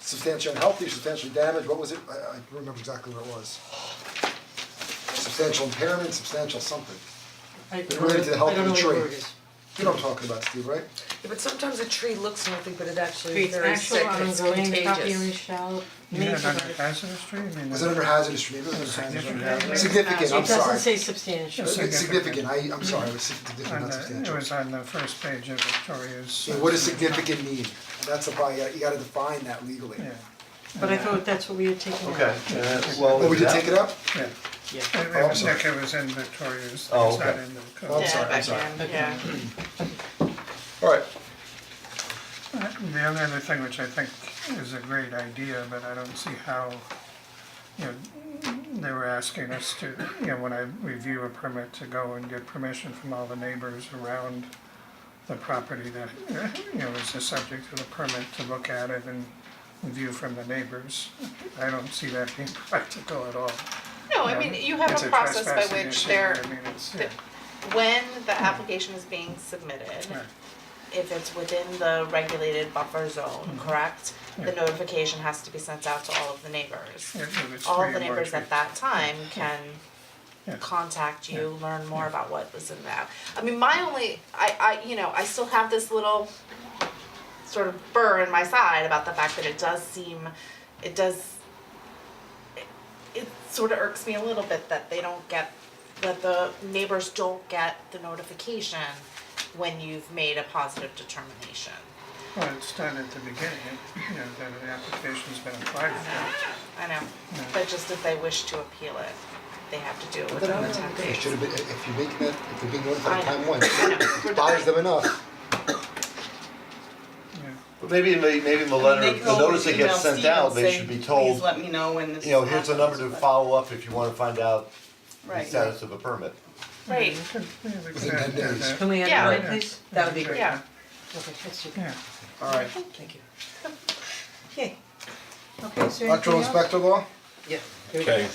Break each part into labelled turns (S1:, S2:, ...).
S1: substantially unhealthy, substantially damaged, what was it? I I don't remember exactly what it was. Substantial impairment, substantial something.
S2: I
S1: It related to the health
S2: I don't
S1: of the
S2: know
S1: tree.
S2: what word it is.
S1: You know what I'm talking about, Steve, right?
S3: Yeah, But sometimes a tree looks healthy, but it actually is
S2: Creates
S3: very
S2: actual
S3: sick, and it's
S2: ongoing copyright
S3: contagious.
S2: shall
S4: You mean it's
S2: major.
S4: under hazardous tree, I mean.
S1: Was it under hazardous, maybe it was under
S4: Significant
S1: hazardous.
S4: hazardous.
S1: Significant, I'm
S2: Uh, It doesn't
S1: sorry.
S2: say substantial.
S4: Yes.
S1: It's significant, I, I'm sorry, it was significant,
S4: on
S1: not
S4: the-
S1: substantial.
S4: it was on the first page of Victoria's.
S1: So what does significant mean? That's the problem, you gotta- you gotta define that legally.
S4: Yeah,
S2: But I thought that's what we had taken out.
S5: Okay, and that's- well,
S1: Oh, we did
S5: that-
S1: take it up?
S4: yeah.
S2: Yeah.
S4: It- It
S1: Oh, I'm
S4: was,
S1: sorry.
S4: Nick, it was in Victoria's, it's
S5: Oh,
S4: not
S5: okay.
S4: in the code.
S1: Oh, I'm sorry, I'm sorry.
S3: yeah.
S1: Alright,
S4: The only other thing which I think is a great idea, but I don't see how, you know, they were asking us to, you know, when I review a permit, to go and get permission from all the neighbors around the property that, you know, is the subject of the permit, to look at it and view from the neighbors. I don't see that being practical at all.
S6: No, Oh, I mean, you have
S4: It's
S6: a process by
S4: trespassing
S6: which
S4: issue,
S6: they're,
S4: I mean, it's,
S6: th-
S4: yeah, Hmm.
S6: when the application is being submitted,
S4: right.
S6: if it's within the regulated buffer zone, correct? The
S4: Hmm. Yeah.
S6: notification has to be sent out to all of the neighbors.
S4: Yeah, if it's
S6: All
S4: three
S6: of
S4: or more
S6: the neighbors
S4: trees.
S6: at that time can
S4: Yeah.
S6: contact you, learn more about what was in that. I mean, my only, I, I, you know, I still have this little sort of burr in my side about the fact that it does seem, it does, it, it sort of irks me a little bit that they don't get, that the neighbors don't get the notification when you've made a positive determination.
S4: Well, it's done at the beginning, you know, that an application's been applied for.
S6: I know, but just if they wish to appeal it, they have to do it
S1: but then
S6: within
S1: I'm not,
S6: the ten
S1: it should
S6: days.
S1: have been, if you make that, if you're being notified
S6: I know.
S1: time one,
S6: I know. We're
S1: it bothers them enough.
S5: But maybe, may- maybe in the letter, the notice that gets sent out, they should be told,
S7: Please let me know when this
S5: you know, here's a number to
S7: happens," but-
S5: follow up if you wanna find out the
S7: Right.
S5: status of a permit.
S6: Right,
S1: Within 10 days.
S2: Can we
S6: Yeah.
S2: add one, please?
S3: That would be great.
S6: yeah,
S2: Okay, let's do that.
S4: Yeah,
S1: Alright,
S3: Thank you.
S2: Okay. Okay, so anything else?
S1: electrical inspector law?
S3: Yeah.
S8: Okay,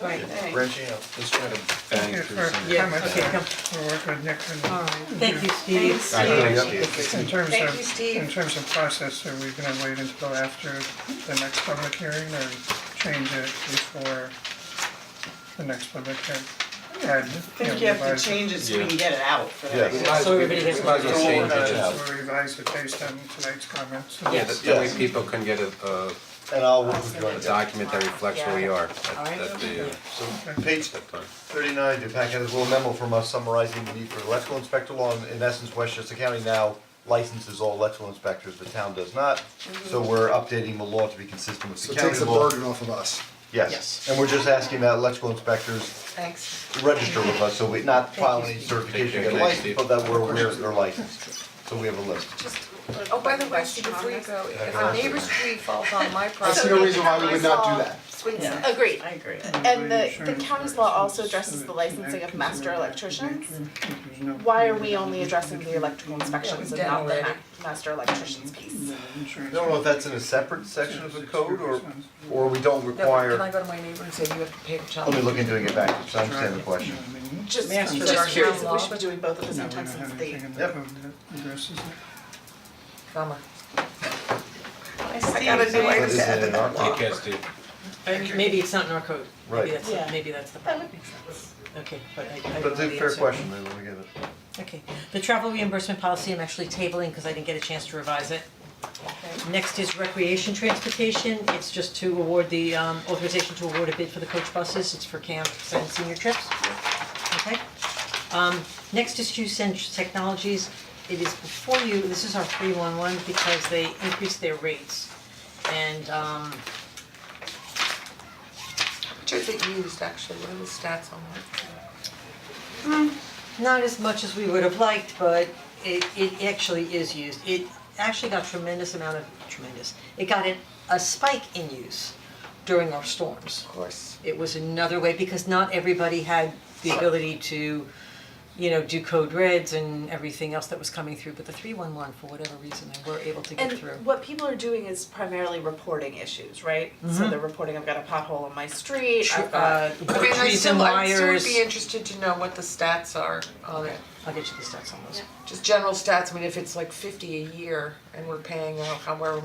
S2: Right,
S5: Branching out.
S8: let's try to bang
S4: Here
S8: through
S4: for
S8: some.
S2: yeah,
S4: comments.
S2: okay, come,
S4: we'll work with Nick and.
S2: alright, thank you, Steve.
S8: I don't know, yeah.
S4: In terms
S3: Thank you,
S4: of,
S3: Steve.
S4: in terms of process, are we gonna wait until after the next public hearing or change it before the next public hearing? Add,
S7: I think you
S4: know,
S7: have
S4: revise
S7: to
S4: it.
S7: change it so we can get it out for that.
S5: Yes.
S1: Might as
S2: So
S1: well-
S2: everybody has
S1: we
S2: to
S1: might as well
S5: vote.
S1: change it.
S5: Change it.
S4: So we'll revise it based on tonight's comments.
S8: Yeah, that that way
S5: Yes.
S8: people can get a, a-
S5: And I'll work with
S8: a
S5: Joanna.
S8: document that reflects where we are at,
S2: Alright.
S8: at the, uh,
S5: So page
S8: that time.
S5: thirty-nine, your packet has a little memo from us summarizing the need for electrical inspector law, and in essence, Westchester County now licenses all electrical inspectors, the town does not. So we're updating the law to be consistent with
S1: So
S5: the
S1: it takes
S5: county
S1: the
S5: law.
S1: burden off of us.
S5: Yes, and we're just asking that electrical inspectors
S3: Thanks.
S5: register with us, so we're not filing any certification,
S8: Thank
S5: to
S8: you.
S5: get a license, but that we're aware that they're licensed. So we have a list.
S3: Oh, by the way, Steve, before you go, if a neighbor's tree falls on my
S1: I
S3: property.
S1: see no reason why we would not do that.
S6: swings,
S7: Yeah.
S6: agreed.
S7: I agree.
S6: And the- the county's law also addresses the licensing of master electricians. Why are we only addressing the electrical inspections and not the ma- master electricians
S4: Mm-hmm.
S6: piece?
S5: I don't know if that's in a separate section of the code, or, or we don't
S3: No, but
S5: require,
S3: can I go to my neighbor and say you have to pay the child?
S5: let me look into it, and get back, to you, so I understand the question.
S6: Just,
S3: Master
S6: just curious if we
S3: electrician.
S6: should be doing both at
S4: No,
S6: the same
S4: we don't
S6: time since
S4: have
S6: they,
S4: anything in the
S5: Yep.
S4: code that addresses it.
S3: Bummer.
S6: I gotta know.
S5: That isn't in our law.
S8: Take care, Steve.
S2: Alright, Maybe it's not in our code,
S5: Right.
S2: maybe that's,
S3: Yeah.
S2: maybe that's the
S6: That
S2: problem,
S6: would make sense.
S2: okay, but I I don't know the answer.
S5: But it's a fair question, then, let me get it.
S2: Okay, the travel reimbursement policy I'm actually tabling because I didn't get a chance to revise it. Next is recreation transportation, it's just to award the um authorization to award a bid for the coach buses, it's for camps and senior trips. Okay, um next is Hughes Sen- Technologies, it is before you, this is our three one one because they increased their rates. And um
S3: Which is it used, actually, what are the stats on that?
S2: not as much as we would have liked, but it it actually is used. It actually got tremendous amount of tremendous. It got an, a spike in use during our storms.
S5: Of course.
S2: It was another way because not everybody had the ability to, you know, do code reds and everything else that was coming through, but the three one one, for whatever reason, they were able to get
S6: And
S2: through.
S6: what people are doing is primarily reporting issues, right? So they're reporting, I've got a pothole on my street,
S2: Tr-
S6: I've got,
S2: uh,
S3: I mean, I
S2: trees and
S3: still, I'd
S2: wires.
S3: still would be interested to know what the stats are on it,
S2: I'll get you the stats on those.
S3: just general stats, I mean, if it's like fifty a year and we're paying, I don't know, how- where